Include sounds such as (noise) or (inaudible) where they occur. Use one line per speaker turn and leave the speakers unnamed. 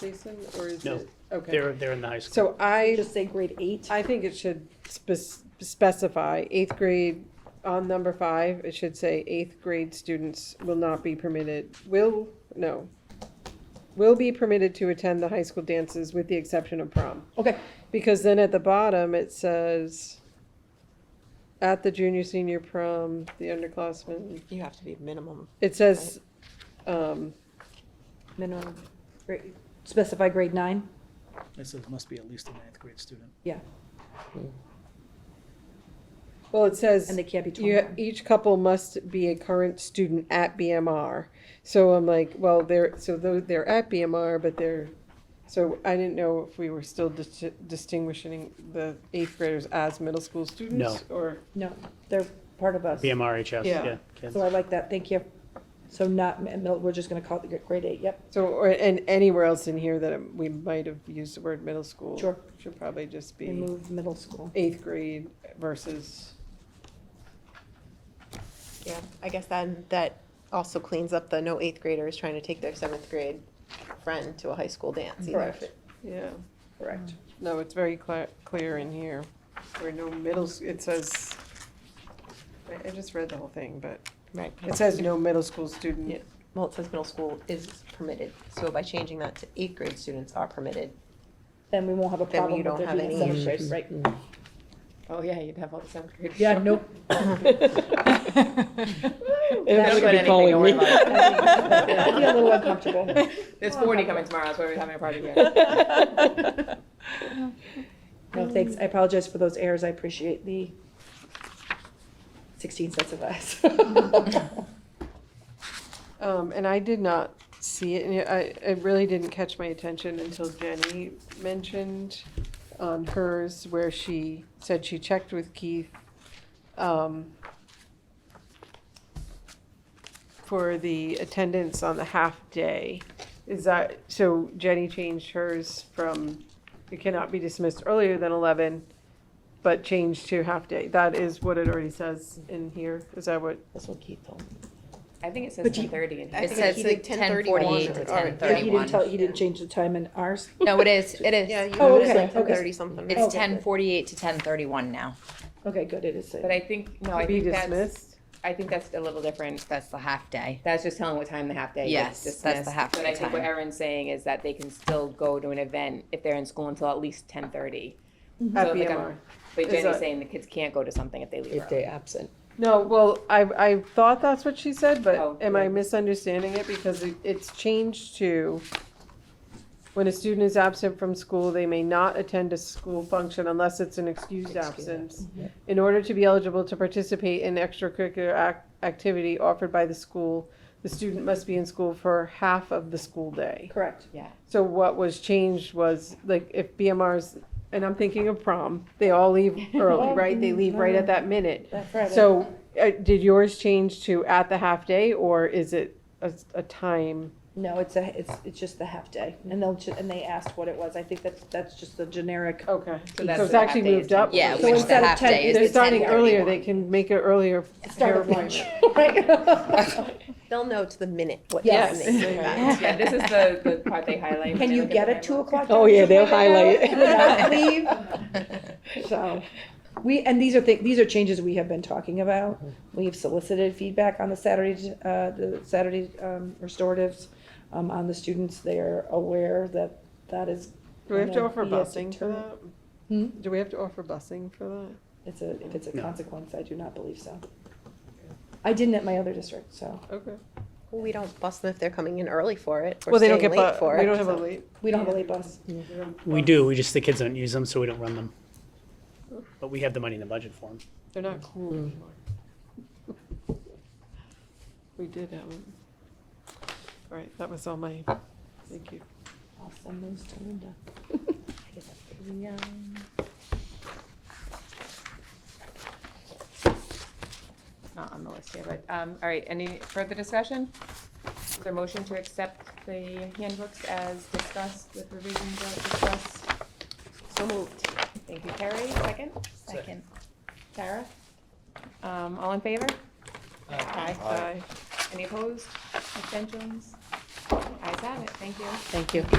Jason, or is
No,
it? Okay.
They're, they're in the high school.
So I,
Just say grade eight.
I think it should spec- specify eighth grade, on number five, it should say eighth grade students will not be permitted, will, no. Will be permitted to attend the high school dances with the exception of prom.
Okay,
Because then at the bottom, it says, at the junior, senior prom, the underclassmen,
you have to be minimum,
it says, um,
minimum, grade- specify grade nine?
It says must be at least a ninth grade student.
Yeah,
well, it says.
and they can't be
You,
21.
each couple must be a current student at BMR. So I'm like, well, they're, so tho- they're at BMR, but they're, so I didn't know if we were still dis- distinguishing the eighth graders as middle school students? Or,
No, they're part of us.
BMRHS,
Yeah.
yeah, kids.
So I like that, thank you. So not, mi- mil- we're just gonna call it the grade eight, yep,
so, or, and anywhere else in here that we might have used the word middle school.
Sure.
Should probably just be
remove middle school.
eighth grade versus,
Yeah, I guess that, that also cleans up the no eighth graders trying to take their seventh grade friend to a high school dance either.
Correct. yeah.
Correct.
No, it's very clear, clear in here, where no middle, s- it says, I, I just read the whole thing, but
Right.
it says no middle school student.
Yeah. Well, it says middle school is permitted, so by changing that to eighth grade students are permitted.
Then we won't have a
Then
problem
you
with
don't
there
have
being a
any
seventh grade, right? (laughs)
Oh, yeah, you'd have all the seventh graders.
Yeah,
(laughs)
nope. (laughs)
That's
would
what anything
calling
we're
me.
like.
I'd be a little uncomfortable.
There's forty coming tomorrow, that's why we're having a party here.
No, thanks, I apologize for those errors, I appreciate the sixteen sets of eyes. (laughs)
Um, and I did not see it, and I, it really didn't catch my attention until Jenny mentioned on hers, where she said she checked with Keith, um, for the attendance on the half-day. Is that, so Jenny changed hers from, it cannot be dismissed earlier than eleven, but changed to half-day. That is what it already says in here, is that what?
That's what Keith told me.
I think it says
But you-
ten thirty in here.
I
It
think
says
he
like
did
ten
10:41
forty-eight to
or- or-
ten
Yeah, He didn't tell, he
thirty-one.
didn't change the time in ours?
No, it is, it
(laughs) Yeah,
is.
you
Oh,
know, it's
okay,
like ten
okay.
thirty something.
Oh,
It's
okay,
ten
good.
forty-eight to ten thirty-one now.
Okay, good, it is.
But I think, no,
To
I
be
think that's,
dismissed?
I think that's a little different.
That's the half day.
That's just telling what time the half day is.
Yes, that's the
dismissed.
half
But
day
I think what
time.
Erin's saying is that they can still go to an event if they're in school until at least ten thirty.
At
Mhm. So, like, I'm-
BMR.
But
Is
Jenny's
that-
saying the kids can't go to something if they leave early.
they absent.
No, well, I, I thought that's what she said, but
Oh,
am I
yeah.
misunderstanding it? Because it- it's changed to, when a student is absent from school, they may not attend a school function unless it's an excused absence. In order to be eligible to participate in extracurricular ac- activity offered by the school, the student must be in school for half of the school day.
Correct.
So what was changed was, like, if BMR's, and I'm thinking of prom, they all leave early, right? They leave right at that minute.
That's right.
So, uh, did yours change to at the half day, or is it a, a time?
No, it's a, it's, it's just the half day, and they'll, ju- and they asked what it was, I think that's, that's just the generic. (laughs)
Okay. So
So that's
it's
the half
actually
day is
moved up?
10.
Yeah, which
So
the
instead of
half
10
day is
They're
the ten
starting earlier, they
thirty-one.
can make it earlier.
Start
hair
of lunch,
appointment.
(laughs) right?
They'll know to the minute what time
Yes.
they came back. (laughs)
Yeah, this is the, the part they highlight. when
Can
they
you
look
get
at the
a two
timeline.
o'clock?
Oh, yeah,
doctor's
they'll
appointment
highlight
without leave? (laughs) So, we, and these are things, these are changes we have been talking about. We've solicited feedback on the Saturday, uh, the Saturday, um, restoratives, um, on the students. They're aware that that is.
Do we have to
gonna
offer
be a
busing for
deterrent.
that?
Hmm?
Do we have to offer busing for that?
It's a, if it's a
No.
consequence, I do not believe so. I didn't at my other district, so
Okay.
Well, We don't bust them if they're coming in early for it or
Well, they don't
staying
get,
late for
bu-
it.
we don't have a
so-
late.
we don't have a late bus.
We do, we just, the kids don't use them, so we don't run them. But we have the money in the budget for them.
They're not cool anymore. We did have them. All right, that was all my, thank you.
Awesome moves to Linda.
Not on the list here, but, um, all right, any further discussion? Is there a motion to accept the handbooks as discussed with revisions as discussed? So moved. Thank you, Carrie. Second?
Second.
Sarah? Um, all in favor? Aye.
Bye.
Any opposed? Abstentions? Ayes have it. Thank you.
Thank you.